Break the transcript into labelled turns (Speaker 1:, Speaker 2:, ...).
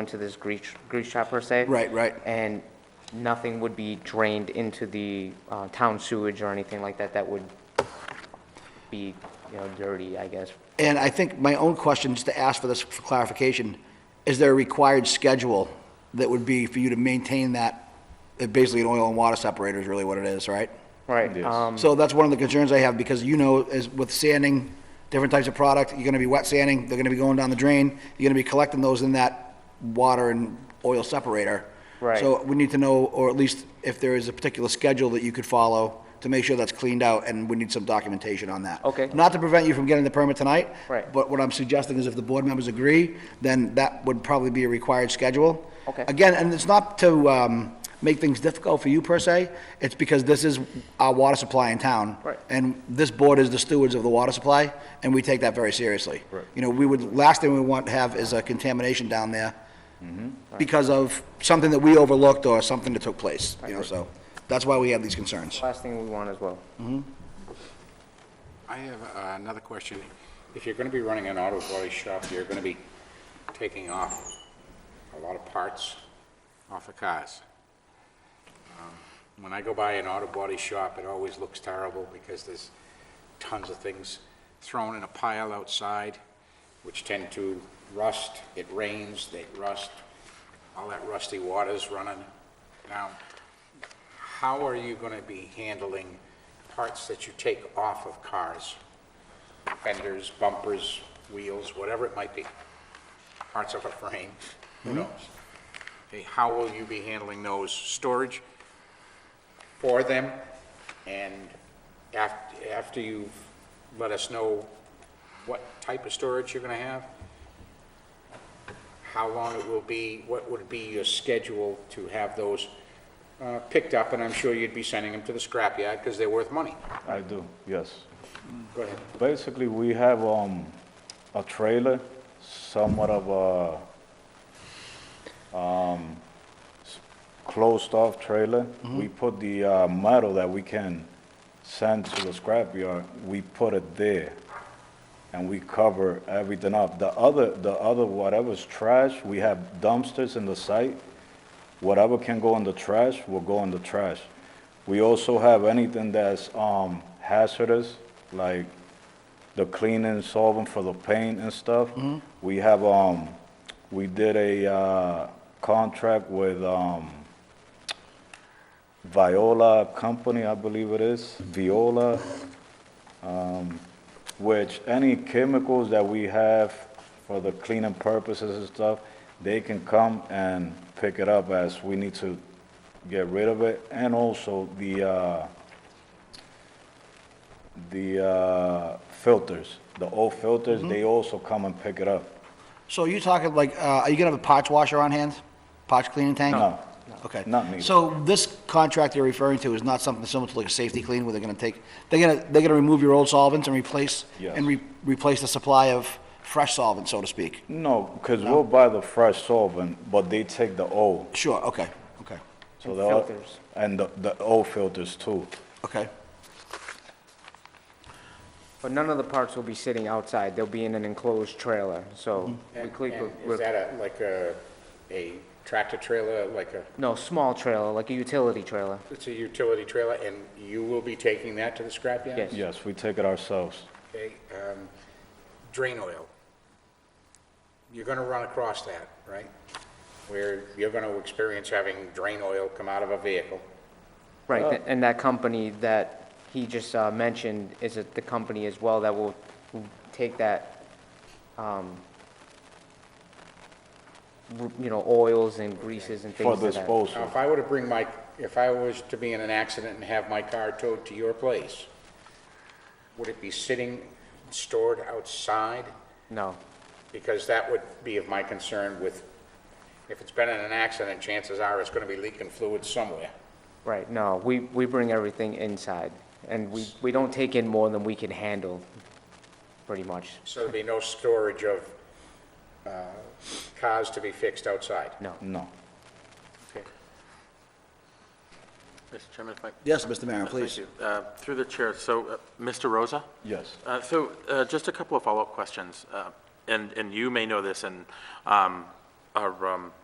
Speaker 1: into this grease, grease trap per se.
Speaker 2: Right, right.
Speaker 1: And nothing would be drained into the uh, town sewage or anything like that that would be, you know, dirty, I guess.
Speaker 2: And I think my own question, just to ask for this for clarification, is there a required schedule that would be for you to maintain that, uh, basically an oil and water separator is really what it is, right?
Speaker 1: Right, um,
Speaker 2: So that's one of the concerns I have, because you know, is with sanding, different types of product, you're gonna be wet sanding, they're gonna be going down the drain, you're gonna be collecting those in that water and oil separator.
Speaker 1: Right.
Speaker 2: So we need to know, or at least if there is a particular schedule that you could follow to make sure that's cleaned out, and we need some documentation on that.
Speaker 1: Okay.
Speaker 2: Not to prevent you from getting the permit tonight.
Speaker 1: Right.
Speaker 2: But what I'm suggesting is if the board members agree, then that would probably be a required schedule.
Speaker 1: Okay.
Speaker 2: Again, and it's not to um, make things difficult for you per se, it's because this is our water supply in town.
Speaker 1: Right.
Speaker 2: And this board is the stewards of the water supply, and we take that very seriously. Right. You know, we would, last thing we want to have is a contamination down there because of something that we overlooked or something that took place, you know, so that's why we have these concerns.
Speaker 1: last thing we want as well.
Speaker 3: I have uh, another question. If you're going to be running an auto body shop, you're going to be taking off a lot of parts off of cars. Um, When I go by an auto body shop, it always looks terrible because there's tons of things thrown in a pile outside, which tend to rust. It rains, they rust. All that rusty water's running. Now, how are you going to be handling parts that you take off of cars? Fenders, bumpers, wheels, whatever it might be, parts of a frame, who knows? Okay, how will you be handling those? Storage for them? And after, after you've let us know what type of storage you're going to have? how long it will be, what would be your schedule to have those uh, picked up, and I'm sure you'd be sending them to the scrapyard because they're worth money.
Speaker 4: I do, yes.
Speaker 3: Go ahead.
Speaker 4: Basically, we have um, a trailer, somewhat of a um, s- closed-off trailer. We put the uh, metal that we can send to the scrapyard, we put it there, and we cover everything up. The other, the other, whatever's trash, we have dumpsters in the site. Whatever can go in the trash will go in the trash. We also have anything that's um, hazardous, like the cleaning solvent for the paint and stuff. We have, um, we did a uh, contract with um, Viola Company, I believe it is, Viola, um, which any chemicals that we have for the cleaning purposes and stuff, they can come and pick it up as we need to get rid of it. And also the, uh, the uh, filters, the old filters,
Speaker 1: Mm-hmm.
Speaker 4: they also come and pick it up.
Speaker 2: So you're talking like, uh, are you gonna have a parts washer on hand? Parts cleaning tank?
Speaker 4: No.
Speaker 2: Okay.
Speaker 4: Not needed.
Speaker 2: So this contract you're referring to is not something similar to like a safety clean where they're gonna take, they're gonna, they're gonna remove your old solvents and replace,
Speaker 4: Yes.
Speaker 2: and re- replace the supply of fresh solvent, so to speak?
Speaker 4: No, because we'll buy the fresh solvent, but they take the old.
Speaker 2: Sure, okay, okay,
Speaker 4: So
Speaker 1: And
Speaker 4: the o-
Speaker 1: filters.
Speaker 4: And the, the old filters too.
Speaker 2: okay.
Speaker 1: But none of the parts will be sitting outside, they'll be in an enclosed trailer, so. we
Speaker 3: Mm-hmm. And
Speaker 1: click-
Speaker 3: and
Speaker 1: we're-
Speaker 3: is that a, like a, a tractor trailer, like a,
Speaker 1: No, small trailer, like a utility trailer,
Speaker 3: it's a utility trailer, and you will be taking that to the scrapyard?
Speaker 1: Yes.
Speaker 4: Yes, we take it ourselves.
Speaker 3: Okay, um, drain oil. You're gonna run across that, right? Where you're gonna experience having drain oil come out of a vehicle.
Speaker 1: right,
Speaker 4: Oh.
Speaker 1: th- and that company that he just uh, mentioned is it the company as well that will will take that, um, r- you know, oils and greases and
Speaker 4: For
Speaker 1: things of that.
Speaker 3: Now,
Speaker 4: disposal,
Speaker 3: if I were to bring my, if I was to be in an accident and have my car towed to your place, would it be sitting, stored outside?
Speaker 1: No,
Speaker 3: Because that would be of my concern with, if it's been in an accident, chances are it's gonna be leaking fluid somewhere.
Speaker 1: right, no, we, we bring everything inside, and we, we don't take in more than we can handle, pretty much,
Speaker 3: So there'd be no storage of, uh, cars to be fixed outside.
Speaker 1: no.
Speaker 4: no.
Speaker 5: Mr. Chairman, if I...
Speaker 2: Yes, Mr. Maron, please.
Speaker 5: Thank you. Uh, Through the chair, so, uh, Mr. Rosa?
Speaker 4: Yes.
Speaker 5: Uh, So, uh, just a couple of follow-up questions, uh, and, and you may know this, and um, are um,